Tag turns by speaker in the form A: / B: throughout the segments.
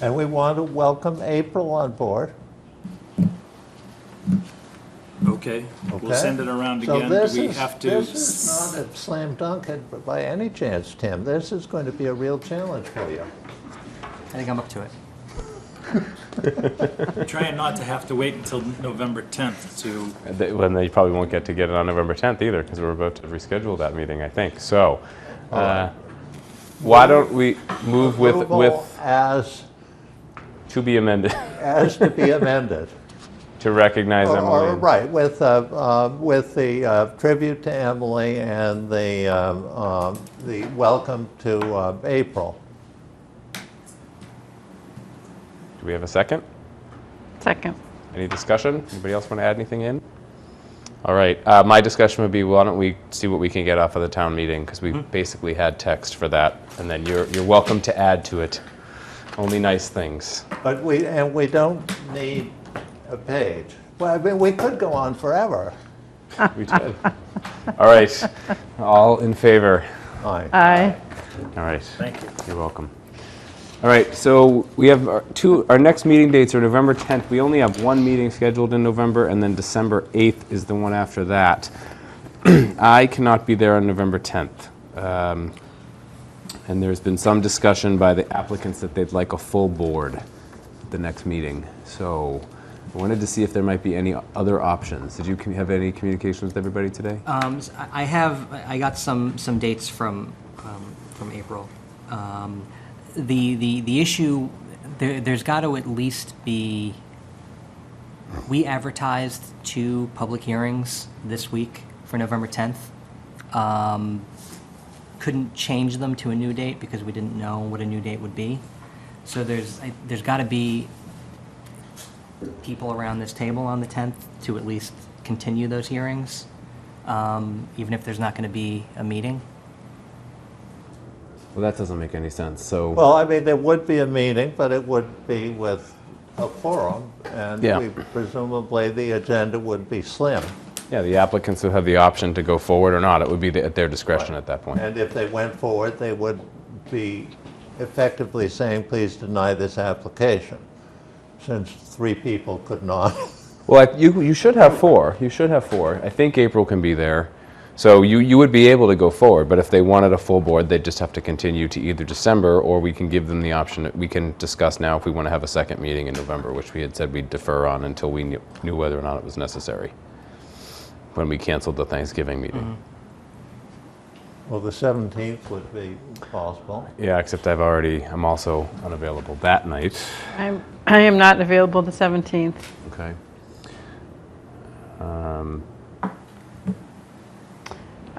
A: And we want to welcome April on board.
B: Okay, we'll
A: Okay.
B: send it around
A: So
B: again.
A: this
B: Do we
A: is-
B: have to?
A: This is not a slam dunk at- by any chance, Tim. This is going to be a real challenge for you.
C: I think I'm up to it.
B: Trying not to have to wait until November 10th to,
D: They- When they probably won't get to get it on November 10th either, because we're about to reschedule that meeting, I think. So, uh, why don't we move with,
A: Approval
D: with,
A: as,
D: to be amended,
A: as to be amended.
D: to recognize
A: Or- or-
D: Emily?
A: Right, with, uh, uh, with the uh, tribute to Emily and the, um, um, the welcome to uh, April.
D: Do we have a second?
E: Second.
D: Any discussion? Anybody else want to add anything in? All right, uh, my discussion would be, why don't we see what we can get off of the town meeting? Because we
A: Mm-hmm.
D: basically had text for that, and then you're, you're welcome to add to it. Only nice things.
A: But we, and we don't need a page. Well, I mean, we could go on forever.
D: We did. All right, all in favor?
A: Aye.
E: Aye.
D: All right.
B: thank you.
D: You're welcome. All right, so we have our two, our next meeting dates are November 10th. We only have one meeting scheduled in November, and then December 8th is the one after that. I cannot be there on November 10th. Um, And there's been some discussion by the applicants that they'd like a full board at the next meeting. So I wanted to see if there might be any other options. Did you com- have any communications with everybody today?
C: Um, s- I I have, I got some, some dates from, um, from April. Um, The, the, the issue, there, there's got to at least be, we advertised two public hearings this week for November 10th. Um, Couldn't change them to a new date because we didn't know what a new date would be. So there's, I- there's got to be people around this table on the 10th to at least continue those hearings, um, even if there's not going to be a meeting.
D: Well, that doesn't make any sense, so.
A: Well, I mean, there would be a meeting, but it would be with a forum, and
D: Yeah.
A: we- presumably the agenda would be slim.
D: Yeah, the applicants would have the option to go forward or not. It would be the- at their discretion at that point.
A: And if they went forward, they would be effectively saying, please deny this application, since three people could not.
D: Well, I- you, you should have four. You should have four. I think April can be there. So you, you would be able to go forward, but if they wanted a full board, they'd just have to continue to either December or we can give them the option that we can discuss now if we want to have a second meeting in November, which we had said we'd defer on until we knew, knew whether or not it was necessary when we canceled the Thanksgiving meeting.
A: Well, the 17th would be possible.
D: Yeah, except I've already, I'm also unavailable that night.
E: I'm, I am not available the 17th.
D: Okay.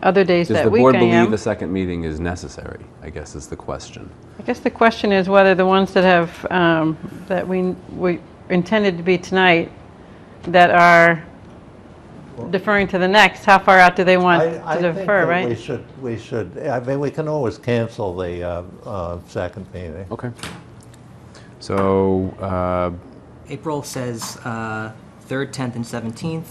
E: Other days
D: Does
E: that
D: the
E: week
D: board
E: I
D: believe
E: am.
D: the second meeting is necessary? I guess is the question.
E: I guess the question is whether the ones that have, um, that we, we intended to be tonight, that are deferring to the next, how far out do they want
A: I-
E: to defer,
A: I think that we
E: right?
A: should, we should, I mean, we can always cancel the uh, uh, second meeting.
D: Okay. So, uh,
C: April says uh, 3rd, 10th, and 17th.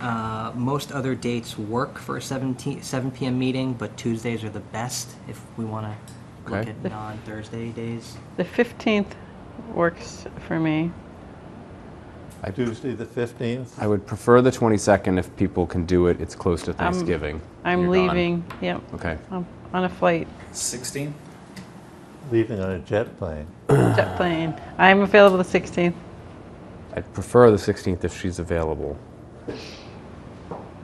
C: Uh, Most other dates work for a 17 7 PM meeting, but Tuesdays are the best if we want to look
D: Okay.
C: at non-Thursday days.
E: The 15th works for me.
A: Tuesday, the 15th?
D: I would prefer the 22nd if people can do it. It's close to Thanksgiving.
E: I'm
D: You're gone.
E: leaving, yep,
D: Okay.
E: I'm on a flight,
B: 16?
A: leaving on a jet plane.
E: jet plane. I'm available the 16th.
D: I'd prefer the 16th if she's available.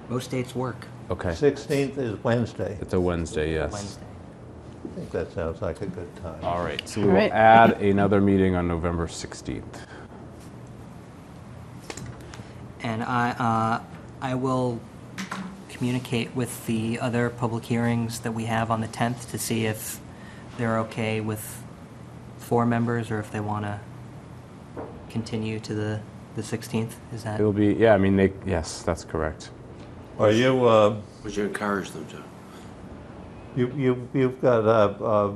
C: Most dates work
D: Okay.
A: 16th is Wednesday.
D: It's a Wednesday, yes.
C: Wednesday.
A: I think that sounds like a good time.
D: All right. So we
E: All
D: will
E: right.
D: add another meeting on November 16th.
C: And I, uh, I will communicate with the other public hearings that we have on the 10th to see if they're okay with four members or if they want to continue to the, the 16th. Is that?
D: It'll be, yeah, I mean, they, yes, that's correct.
A: Are you, uh,
F: Would you encourage them to?
A: you, you, you've got, uh, uh,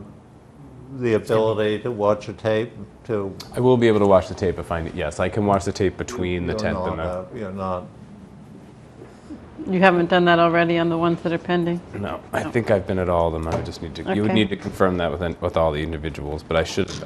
A: the ability to watch a tape to?
D: I will be able to watch the tape if I, yes, I can watch the tape between the
A: you're
D: 10th and the,
A: not, uh, You're not,
E: You haven't done that already on the ones that are pending?
D: No, I think I've been at all of them. I would just need to, you would
E: Okay.
D: need to confirm that with, an- with all the individuals, but I should,